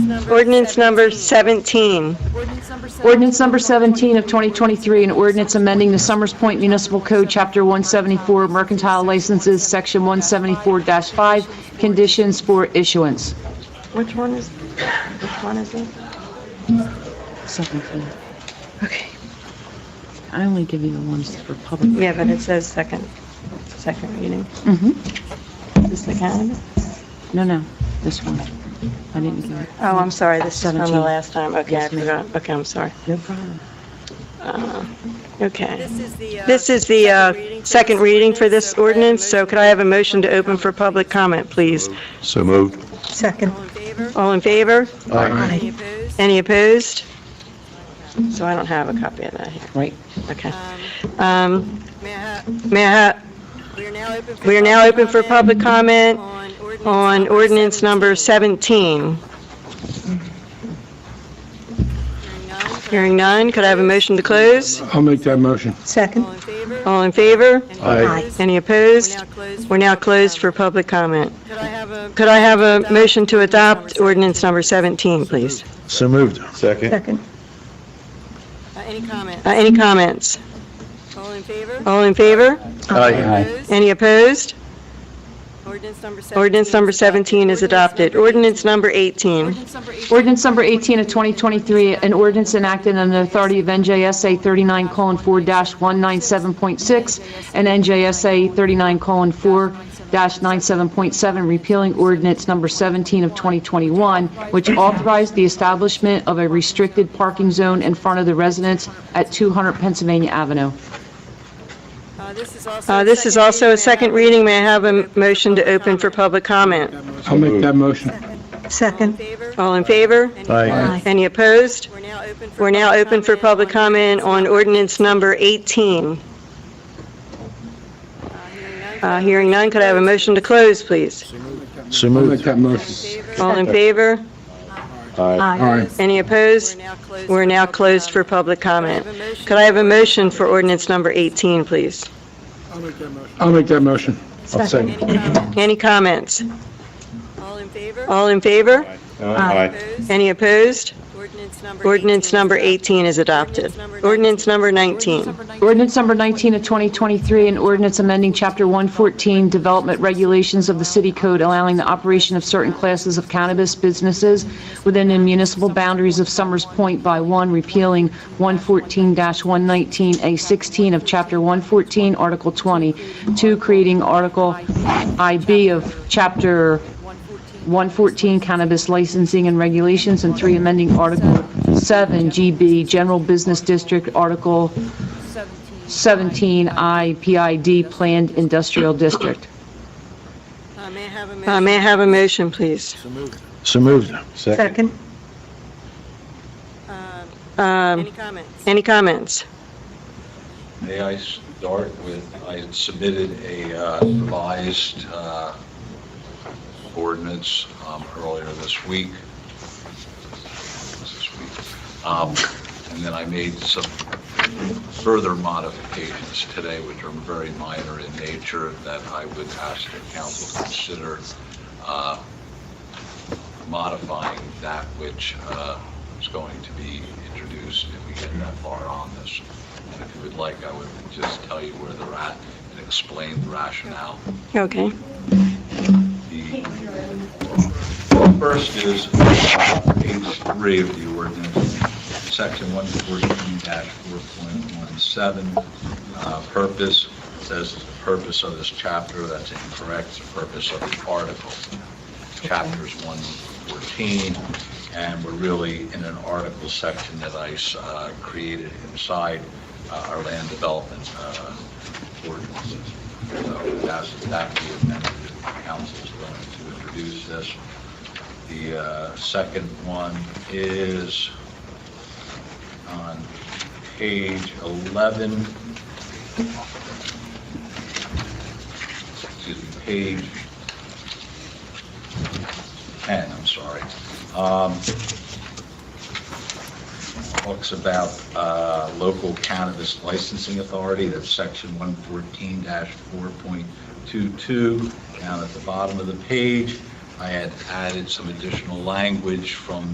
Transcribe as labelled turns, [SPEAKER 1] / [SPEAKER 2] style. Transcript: [SPEAKER 1] number.
[SPEAKER 2] Ordinance number 17.
[SPEAKER 1] Ordinance number 17.
[SPEAKER 3] Ordinance number 17 of 2023, an ordinance amending the Summers Point Municipal Code, Chapter 174, Mercantile Licenses, Section 174-5, Conditions for Issuance.
[SPEAKER 2] Which one is, which one is it?
[SPEAKER 3] Second thing. Okay. I only give you the ones for public.
[SPEAKER 2] Yeah, but it says second, second reading.
[SPEAKER 3] Mm-hmm.
[SPEAKER 2] Is this the calendar?
[SPEAKER 3] No, no, this one. I didn't give it.
[SPEAKER 2] Oh, I'm sorry, this is from the
[SPEAKER 3] 17.
[SPEAKER 2] last time. Okay, I
[SPEAKER 3] Yes, ma'am.
[SPEAKER 2] forgot. Okay, I'm sorry. Uh,
[SPEAKER 3] No problem.
[SPEAKER 2] Okay.
[SPEAKER 1] This is the. uh,
[SPEAKER 2] This is the uh,
[SPEAKER 1] reading for
[SPEAKER 2] second
[SPEAKER 1] this
[SPEAKER 2] reading for this
[SPEAKER 1] so could I have a
[SPEAKER 2] ordinance, so
[SPEAKER 1] motion?
[SPEAKER 2] could I have a motion to open for public comment, please?
[SPEAKER 4] So moved.
[SPEAKER 5] Second.
[SPEAKER 1] All in favor?
[SPEAKER 2] All in favor?
[SPEAKER 4] Aye.
[SPEAKER 1] Any opposed?
[SPEAKER 2] Any opposed? So I don't have a copy of that here.
[SPEAKER 3] Right.
[SPEAKER 2] Okay.
[SPEAKER 1] Um,
[SPEAKER 2] Um,
[SPEAKER 1] May I, ha-
[SPEAKER 2] May I, ha-
[SPEAKER 1] we are now open for.
[SPEAKER 2] we are now open for public comment
[SPEAKER 1] On ordinance.
[SPEAKER 2] on ordinance number
[SPEAKER 1] 17.
[SPEAKER 2] 17.
[SPEAKER 1] Hearing none, could I
[SPEAKER 2] Hearing none, could I have a motion to close?
[SPEAKER 4] I'll make that motion.
[SPEAKER 5] Second.
[SPEAKER 1] All in favor?
[SPEAKER 2] All in favor?
[SPEAKER 1] Any
[SPEAKER 4] Aye.
[SPEAKER 1] opposed?
[SPEAKER 2] Any
[SPEAKER 1] We're
[SPEAKER 2] opposed?
[SPEAKER 1] now closed.
[SPEAKER 2] We're now
[SPEAKER 1] public
[SPEAKER 2] closed for
[SPEAKER 1] comment.
[SPEAKER 2] public comment.
[SPEAKER 1] Could I have a?
[SPEAKER 2] Could I have a motion to adopt ordinance number 17, please?
[SPEAKER 4] So moved. Second.
[SPEAKER 5] Second.
[SPEAKER 1] Uh, Any comment?
[SPEAKER 2] Uh, Any comments?
[SPEAKER 1] All in favor?
[SPEAKER 2] All in favor?
[SPEAKER 4] Aye.
[SPEAKER 1] Opposed?
[SPEAKER 2] Any opposed?
[SPEAKER 1] Ordinance number 17.
[SPEAKER 2] Ordinance number 17 is adopted. Ordinance number 18.
[SPEAKER 1] Ordinance number 18.
[SPEAKER 3] Ordinance number 18 of 2023, an ordinance enacted under the authority of NJSA 39:4-197.6 and NJSA 39:4-97.7, repealing ordinance number 17 of 2021, which authorized the establishment of a restricted parking zone in front of the residence at 200 Pennsylvania Avenue.
[SPEAKER 1] Uh, This is also.
[SPEAKER 2] Uh,
[SPEAKER 1] a
[SPEAKER 2] This is also a second
[SPEAKER 1] reading.
[SPEAKER 2] reading. May I have a motion to open for public comment?
[SPEAKER 4] I'll make that motion.
[SPEAKER 1] All in
[SPEAKER 5] Second.
[SPEAKER 1] favor?
[SPEAKER 2] All in favor?
[SPEAKER 1] Any
[SPEAKER 4] Aye.
[SPEAKER 1] opposed?
[SPEAKER 2] Any opposed?
[SPEAKER 1] We're now open for.
[SPEAKER 2] We're now open for public comment on ordinance number 18.
[SPEAKER 1] Uh, hearing none, could I have
[SPEAKER 2] Uh,
[SPEAKER 1] a
[SPEAKER 2] Hearing none, could I have a motion to close, please?
[SPEAKER 4] So moved. I'll make that motion.
[SPEAKER 1] favor?
[SPEAKER 2] All in favor?
[SPEAKER 4] Aye.
[SPEAKER 2] Any
[SPEAKER 1] We're
[SPEAKER 2] opposed?
[SPEAKER 1] now closed.
[SPEAKER 2] We're
[SPEAKER 1] for
[SPEAKER 2] now
[SPEAKER 1] public
[SPEAKER 2] closed for
[SPEAKER 1] comment.
[SPEAKER 2] public comment.
[SPEAKER 1] Could I have a motion?
[SPEAKER 2] Could I have a motion for ordinance number 18, please?
[SPEAKER 4] I'll make that motion. I'll
[SPEAKER 1] Any comment?
[SPEAKER 2] Any comments?
[SPEAKER 1] All in favor?
[SPEAKER 2] All in favor?
[SPEAKER 1] Opposed?
[SPEAKER 2] Any opposed?
[SPEAKER 1] Ordinance number. 18
[SPEAKER 2] Ordinance
[SPEAKER 1] is
[SPEAKER 2] number
[SPEAKER 1] adopted.
[SPEAKER 2] 18 is adopted. Ordinance number 19.
[SPEAKER 3] Ordinance number 19 of 2023, an ordinance amending Chapter 114 Development Regulations of the City Code allowing the operation of certain classes of cannabis businesses within the municipal boundaries of Summers Point by one, repealing 114-119A16 of Chapter 114, Article 20, two, creating Article IB of Chapter 114 Cannabis Licensing and Regulations, and three, amending Article 7 GB General Business District, Article 17 IPID Planned Industrial District.
[SPEAKER 1] Uh, May I have a
[SPEAKER 2] Uh,
[SPEAKER 1] motion?
[SPEAKER 2] May I have a motion, please?
[SPEAKER 4] So moved.
[SPEAKER 5] Second.
[SPEAKER 1] Um,
[SPEAKER 2] Um,
[SPEAKER 1] Any comments?
[SPEAKER 2] Any comments?
[SPEAKER 6] May I start with, I submitted a uh, revised uh, ordinance um, earlier this week. This week. Um, And then I made some further modifications today, which are very minor in nature, that I would ask the council to consider uh, modifying that which uh, is going to be introduced if we get that far on this. And if you would like, I would just tell you where they're at and explain the rationale.
[SPEAKER 2] Okay.
[SPEAKER 6] The first is page three of the ordinance, section 114-4.17. Uh, Purpose, says the purpose of this chapter, that's incorrect, It's the purpose of the article. Chapter's 114, and we're really in an article section that I uh, created inside uh, our land development uh, ordinances. So that's, that be amended, if the council's going to introduce this. The uh, second one is on page 11. Excuse me, page 10, I'm sorry. Um, Talks about uh, local cannabis licensing authority, that's section 114-4.22. Down at the bottom of the page, I had added some additional language from